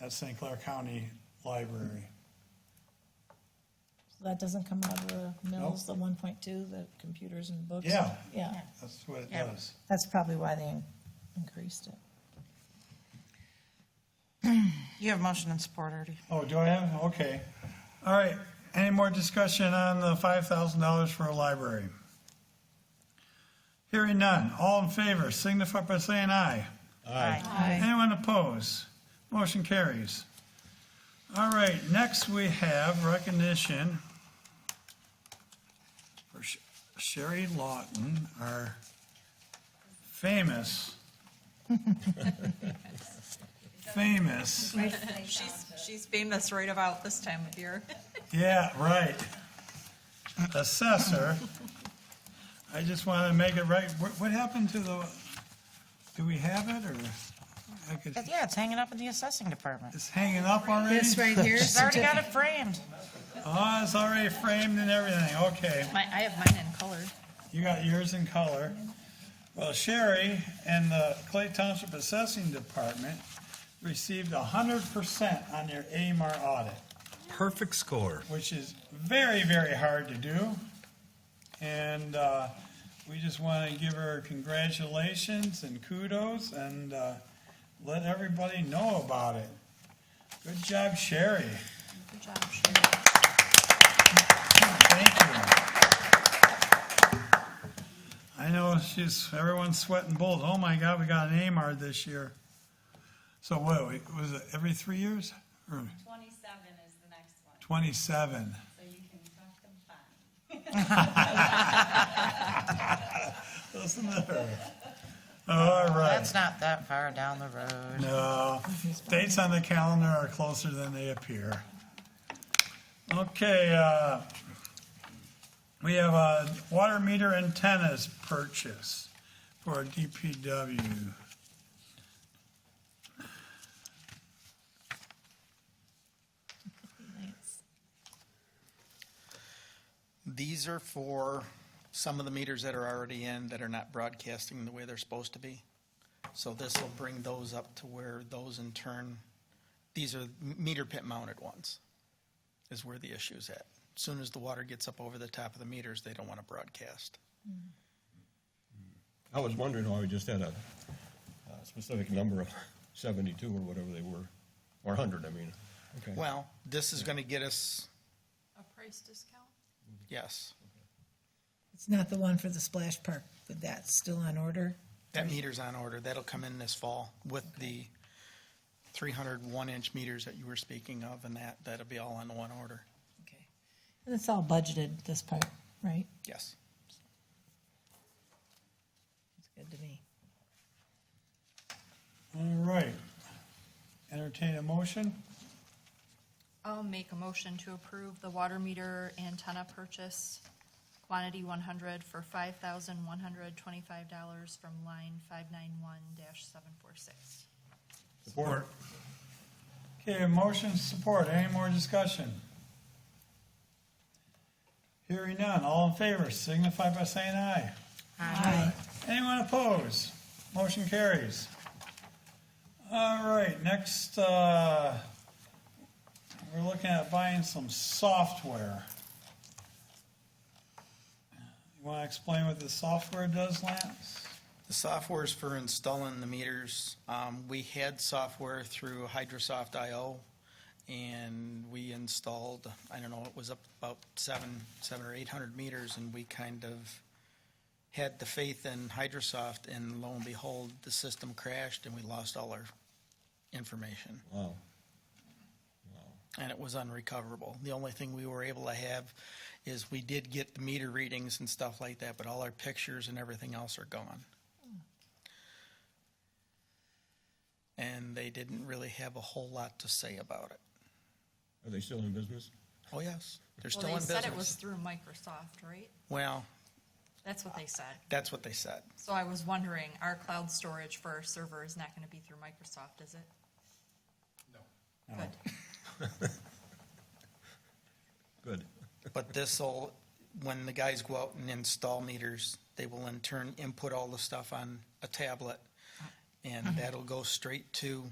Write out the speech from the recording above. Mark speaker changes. Speaker 1: at St. Clair County Library.
Speaker 2: That doesn't come out of the mills, the one point two, the computers and books?
Speaker 1: Yeah.
Speaker 2: Yeah,
Speaker 1: That's what it
Speaker 3: Yeah.
Speaker 1: does.
Speaker 2: that's probably why they increased it.
Speaker 3: You have motion and support already.
Speaker 1: Oh, do I have? Okay. All right. Any more discussion on the five thousand dollars for a library? Hearing none. All in favor, signify by saying aye.
Speaker 3: Aye.
Speaker 1: Anyone opposed? Motion carries. All right, next we have recognition for Sh- Sherry Lawton, our famous, famous,
Speaker 4: She's, she's famous right about this time of year.
Speaker 1: yeah, right, assessor. I just want to make it right. What what happened to the, do we have it, or? I could-
Speaker 3: Yeah, it's hanging up in the assessing department.
Speaker 1: It's hanging up already?
Speaker 5: This right here,
Speaker 3: She's already got it framed.
Speaker 1: Oh, it's already framed and everything, okay.
Speaker 4: My, I have mine in color.
Speaker 1: You got yours in color. Well, Sherry and the Clay Township Assessing Department received hundred percent on their AMAR audit,
Speaker 6: Perfect score.
Speaker 1: which is very, very hard to do. And, uh, we just want to give her congratulations and kudos and, uh, let everybody know about it. Good job, Sherry.
Speaker 4: Good job, Sherry.
Speaker 1: Thank you. I know she's, everyone's sweating bullets. Oh my God, we got an AMAR this year. So what, we- was it every three years? Or
Speaker 7: Twenty-seven is the next one,
Speaker 1: twenty-seven?
Speaker 7: so you can talk them fine.
Speaker 1: Listen to her. All right.
Speaker 3: That's not that far down the road.
Speaker 1: No, dates on the calendar are closer than they appear. Okay, uh, we have a water meter antennas purchase for DPW.
Speaker 8: These are for some of the meters that are already in that are not broadcasting the way they're supposed to be. So this will bring those up to where those in turn, these are meter pit mounted ones, is where the issue is at. Soon as the water gets up over the top of the meters, they don't want to broadcast.
Speaker 6: I was wondering why we just had a uh, specific number of 72 or whatever they were, or 100, I mean. Okay.
Speaker 8: Well, this is going to get us,
Speaker 4: A price discount?
Speaker 8: yes,
Speaker 5: it's not the one for the splash park, but that's still on order.
Speaker 8: that meter's on order. That'll come in this fall with the 301 inch meters that you were speaking of and that, that'll be all on one order.
Speaker 2: Okay. And it's all budgeted, this part, right?
Speaker 8: Yes.
Speaker 2: It's good to me.
Speaker 1: All right. Entertain a motion?
Speaker 4: I'll make a motion to approve the water meter antenna purchase, quantity one hundred for five thousand one hundred twenty-five dollars from line five nine one dash seven four six.
Speaker 1: Support. Okay, a motion, support. Any more discussion? Hearing none. All in favor signify by saying aye.
Speaker 5: Aye.
Speaker 1: Anyone opposed? Motion carries. All right, next, uh, we're looking at buying some software. You want to explain what the software does, Lance?
Speaker 8: The software is for installing the meters. Um, we had software through Hydrosoft IO and we installed, I don't know, it was up about seven, seven or eight hundred meters and we kind of had the faith in Hydrosoft and lo and behold, the system crashed and we lost all our information
Speaker 6: Wow.
Speaker 8: and it was unrecoverable. The only thing we were able to have is we did get the meter readings and stuff like that, but all our pictures and everything else are gone. And they didn't really have a whole lot to say about it.
Speaker 6: Are they still in business?
Speaker 8: Oh, yes, they're still
Speaker 4: Well,
Speaker 8: in
Speaker 4: they said it was
Speaker 8: business.
Speaker 4: through Microsoft, right?
Speaker 8: Well,
Speaker 4: That's what they said.
Speaker 8: that's what they said.
Speaker 4: So I was wondering, our cloud storage for our server is not gonna be through Microsoft, is it? No. Good.
Speaker 6: Good.
Speaker 8: But this'll, when the guys go out and install meters, they will
Speaker 4: Uh-huh.
Speaker 8: in turn input all the stuff on a tablet. And that'll go straight to